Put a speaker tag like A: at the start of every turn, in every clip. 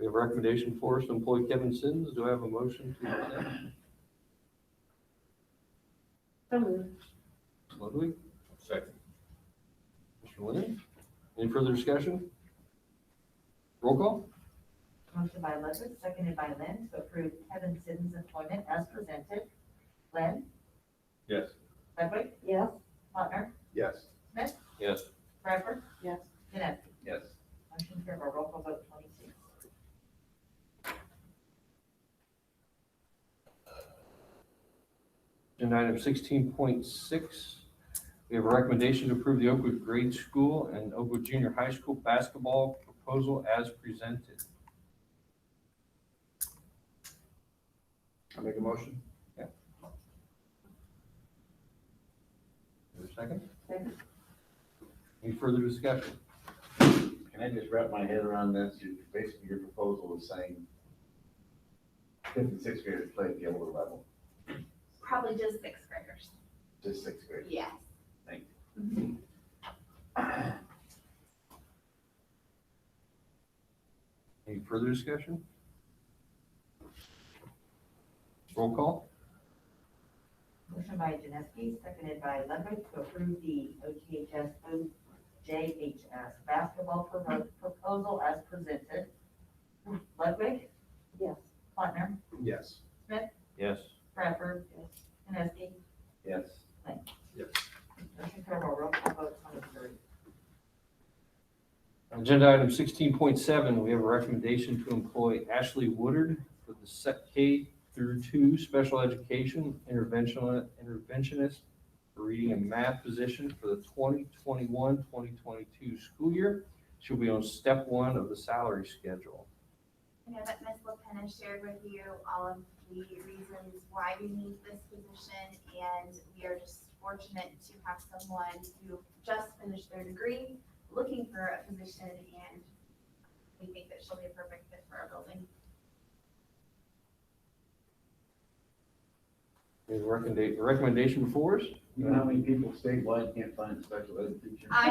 A: have a recommendation for us to employ Kevin Sims. Do I have a motion to accept?
B: So moved.
A: Ludwig,
C: Second.
A: Mr. Lynn, any further discussion? Roll call?
D: Motion by Ludwig, seconded by Lynn, to approve Kevin Siddon's employment as presented. Lynn,
C: Yes.
D: Ludwig,
B: Yes.
D: Plonner,
C: Yes.
A: Yes.
D: Bradford,
B: Yes.
D: Janeski.
C: Yes.
D: Motion here by roll call vote twenty-six.
A: Agenda item sixteen point six, we have a recommendation to approve the Oakwood Grade School and Oakwood Junior High School basketball proposal as presented.
C: I make a motion?
A: Is there a second?
B: Second.
A: Any further discussion?
E: Can I just wrap my head around this? You- Basically, your proposal is saying fifth and sixth graders play at the older level,
F: Probably just sixth graders.
E: just sixth grade.
F: Yes.
E: Thank
A: Any further discussion? Roll call?
D: Motion by Janeski, seconded by Ludwig, to approve the OTHS OJHS basketball provo- proposal as presented. Ludwig,
B: Yes.
D: Plonner,
C: Yes.
A: Yes.
D: Bradford,
B: Yes.
D: Janeski.
E: Yes.
D: Motion here by roll call vote twenty-three.
A: Agenda item sixteen point seven, we have a recommendation to employ Ashley Woodard for the set K through two special education interventional interventionist for reading and math position for the 2021-2022 school year. She'll be on step one of the salary schedule.
F: I know that Ms. LaPena shared with you all of the reasons why we need this position, and we are just fortunate to have someone who just finished their degree, looking for a position, and we think that she'll be a perfect fit for our building.
A: We have a recommenda- a recommendation before us?
E: You know how many people statewide can't find a special ed teacher?
F: I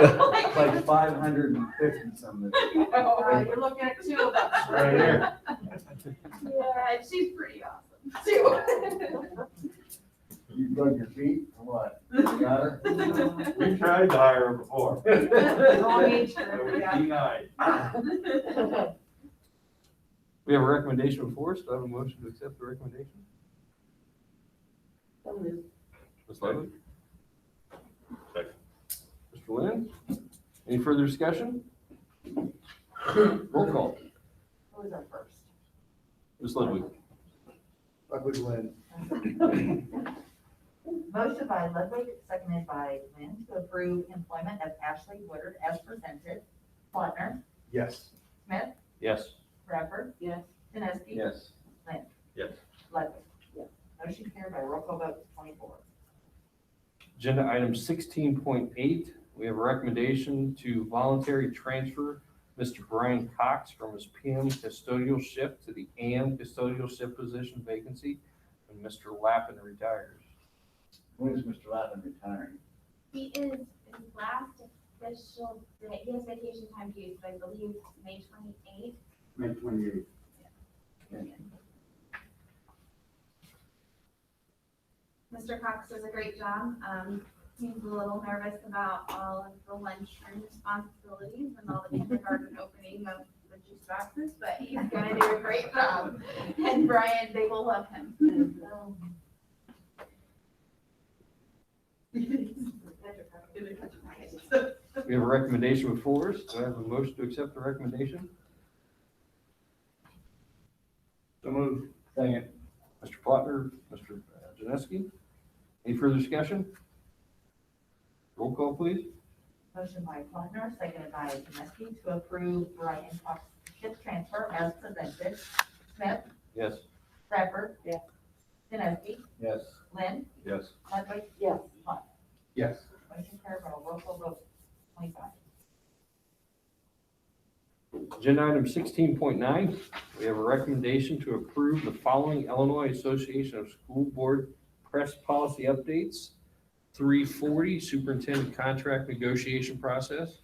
E: It's
F: know.
E: like five hundred and fifty something.
F: Uh, You're looking at two of us.
E: Right here.
F: Yeah, she's pretty awesome, too.
E: You broke your feet or what? Got her?
G: We tried to hire her before.
D: Wrong age
G: and
D: group,
G: we
D: yeah.
G: denied.
A: We have a recommendation before us, do I have a motion to accept the recommendation?
B: So moved.
A: Ms. Ludwig?
C: Second.
A: Mr. Lynn? Any further discussion? Roll call.
D: Who was our first?
A: Ms. Ludwig?
C: Ludwig Lynn.
D: Motion by Ludwig, seconded by Lynn, to approve employment of Ashley Woodard as presented. Plonner,
C: Yes.
A: Yes.
D: Bradford,
B: Yes.
D: Janeski.
E: Yes.
C: Yes.
D: Ludwig.
B: Yes.
D: Motion carried by roll call vote twenty-four.
A: Agenda item sixteen point eight, we have a recommendation to voluntary transfer Mr. Brian Cox from his PM custodial shift to the AM custodial shift position vacancy when Mr. Lappin retires.
E: When is Mr. Lappin retiring?
F: He is his last official day, he has vacation time due, so I believe May twenty-eighth.
E: May twenty-eighth.
F: Mr. Cox does a great job. Um, he's a little nervous about all of the lunchroom responsibilities and all the kindergarten opening of the juice boxes, but he's gonna do a great job. And Brian, they will love him. So,
A: We have a recommendation before us, do I have a motion to accept the recommendation?
C: So move.
E: Second.
A: Mr. Plattner, Mr. Janeski. Any further discussion? Roll call, please.
D: Motion by Plonner, seconded by Janeski, to approve Brian Cox shift transfer as presented. Smith,
A: Yes.
D: Bradford.
B: Yes.
D: Janeski,
E: Yes.
D: Lynn,
C: Yes.
D: Ludwig,
B: Yes.
D: Plonner.
C: Yes.
D: Motion carried by roll call vote twenty-five.
A: Agenda item sixteen point nine, we have a recommendation to approve the following Illinois Association of School Board press policy updates. Three forty, superintendent contract negotiation process.